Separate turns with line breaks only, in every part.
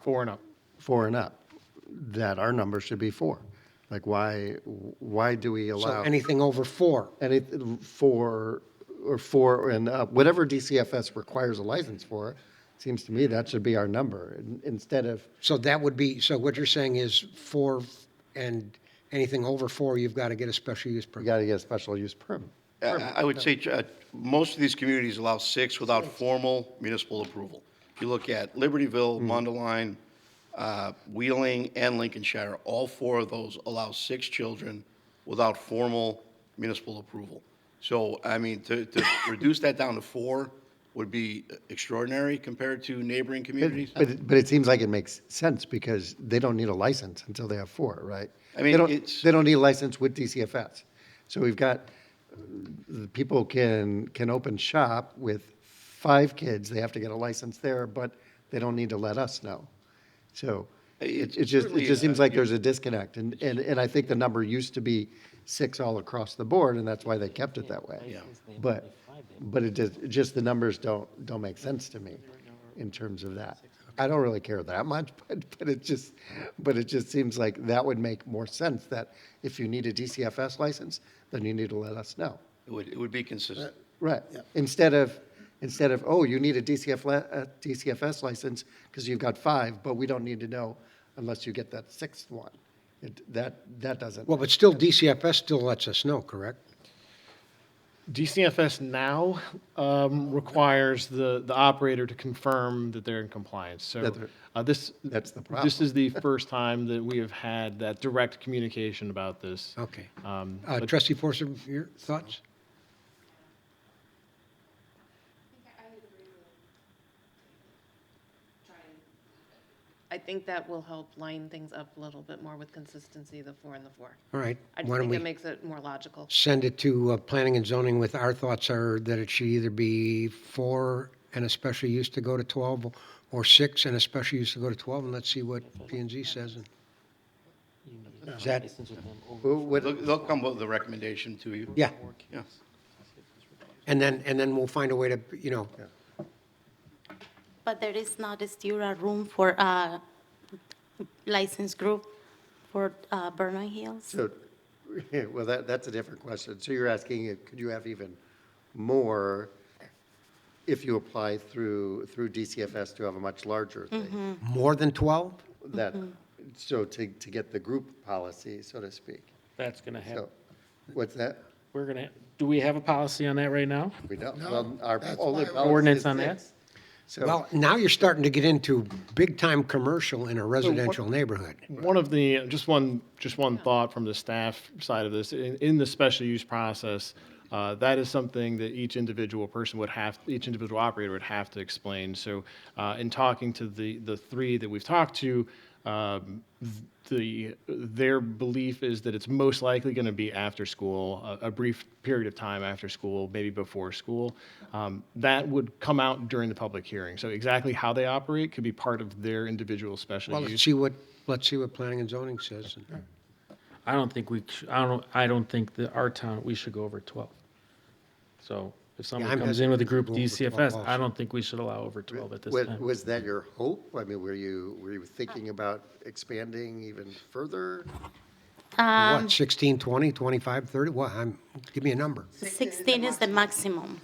Four and up.
four and up, that our number should be four. Like, why, why do we
So
allow
anything over four.
any, four, or four and up, whatever DCFS requires a license for, seems to me that should be our number, in- instead of,
So that would be, so what you're saying is four and anything over four, you've got to get a special use
we
permit.
got to get a special use permit.
I I would say, uh, most of these communities allow six without formal municipal approval. If you look at Libertyville, Mundelein, uh, Wheeling, and Lincolnshire, all four of those allow six children without formal municipal approval. So, I mean, to, to reduce that down to four would be extraordinary compared to neighboring communities.
But, it- but it seems like it makes sense, because they don't need a license until they have four, right?
I mean,
They don't-
it's-
They don't need a license with DCFS. So we've got, the people can, can open shop with five kids, they have to get a license there, but they don't need to let us know. So it
It's
it just, it
certainly,
just seems
uh,
like there's a disconnect, and, and, and I think the number used to be six all across the board, and that's why they kept it that way.
Yeah.
But, but it just, just the numbers don't, don't make sense to me in terms of that. I don't really care that much, but, but it just, but it just seems like that would make more sense, that if you need a DCFS license, then you need to let us know.
It would, it would be consistent.
Right. Instead of, instead of, oh, you need a DCF, li- uh, DCFS license because you've got five, but we don't need to know unless you get that sixth one. It- That, that doesn't.
Well, but still DCFS still lets us know, correct?
DCFS now um, requires the, the operator to confirm that they're in compliance. So
That they're-
uh, this,
That's the
this
problem.
is the first time that we have had that direct communication about this.
Okay.
Um,
Uh, Trustee Forster, your thoughts?
I think that will help line things up a little bit more with consistency, the four and the four.
All right.
I just
Why don't
think it
we
makes it more logical.
send it to uh, planning and zoning with our thoughts are that it should either be four and a special use to go to 12 or six and a special use to go to 12 and let's see what P and Z says. And Is that,
Who- what-
They'll, they'll come with the recommendation to you.
yeah.
Yeah.
And then, and then we'll find a way to, you know,
But there is not still a room for a licensed group for uh, Vernon Hills?
So, well, that, that's a different question. So you're asking, uh, could you have even more if you apply through, through DCFS to have a much larger thing?
more than 12?
That, so to, to get the group policy, so to speak.
That's going to happen.
So, what's that?
We're going to, do we have a policy on that right now?
We don't. Well, our only policy
Ordinance
is
on that?
six. So,
Well, now you're starting to get into big-time commercial in a residential neighborhood.
One of the, just one, just one thought from the staff side of this, in, in the special use process, uh, that is something that each individual person would have, each individual operator would have to explain. So, uh, in talking to the, the three that we've talked to, um, the, their belief is that it's most likely going to be after school, a, a brief period of time after school, maybe before school. Um, that would come out during the public hearing. So exactly how they operate could be part of their individual special
Well,
use.
let's see what, let's see what planning and zoning says.
I don't think we, sh- I don't, I don't think that our town, we should go over 12. So if someone
I'm
comes in with a group
hesitant to go over 12
DCFS,
also.
I don't think we should allow over 12 at this
wa-
time.
was that your hope? I mean, were you, were you thinking about expanding even further?
Um,
What, 16, 20, 25, 30? What, I'm, give me a number.
16 is the maximum.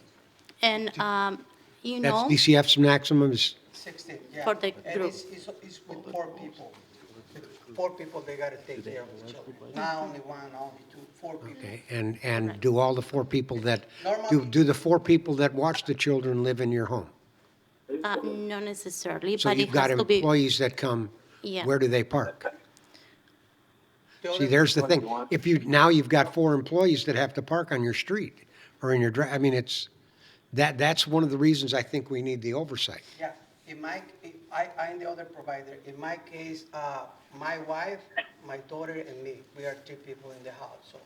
And, um, you
That's
know,
DCF's maximum is,
16, yeah.
For the
And
group.
it's, it's, it's with four people. With Four people, they gotta take care of each other. Not only one, only two, four people.
okay, and, and do all the four people that, do,
Normally-
do the four people that watch the children live in your home?
uh, not necessarily,
So
but it
you've got
has to be,
employees that come,
Yeah.
where do they park?
The
See,
other-
there's the thing. If you, now you've got four employees that have to park on your street or in your, dri- I mean, it's, that, that's one of the reasons I think we need the oversight.
Yeah, in my, in- I, I'm the other provider. In my case, uh, my wife, my daughter and me, we are three people in the house, so.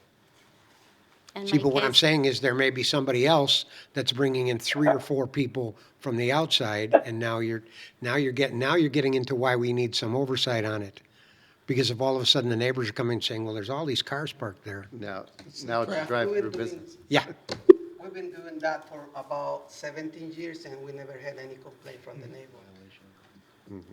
in
See,
my
but what I'm
case,
saying is there may be somebody else that's bringing in three or four people from the outside, and now you're, now you're getting, now you're getting into why we need some oversight on it. Because if all of a sudden the neighbors are coming and saying, well, there's all these cars parked there.
Now, now it's
Yeah,
a
we
drive-through
were doing-
business.
Yeah,
We've been doing that for about 17 years and we never had any complaint from the neighbor.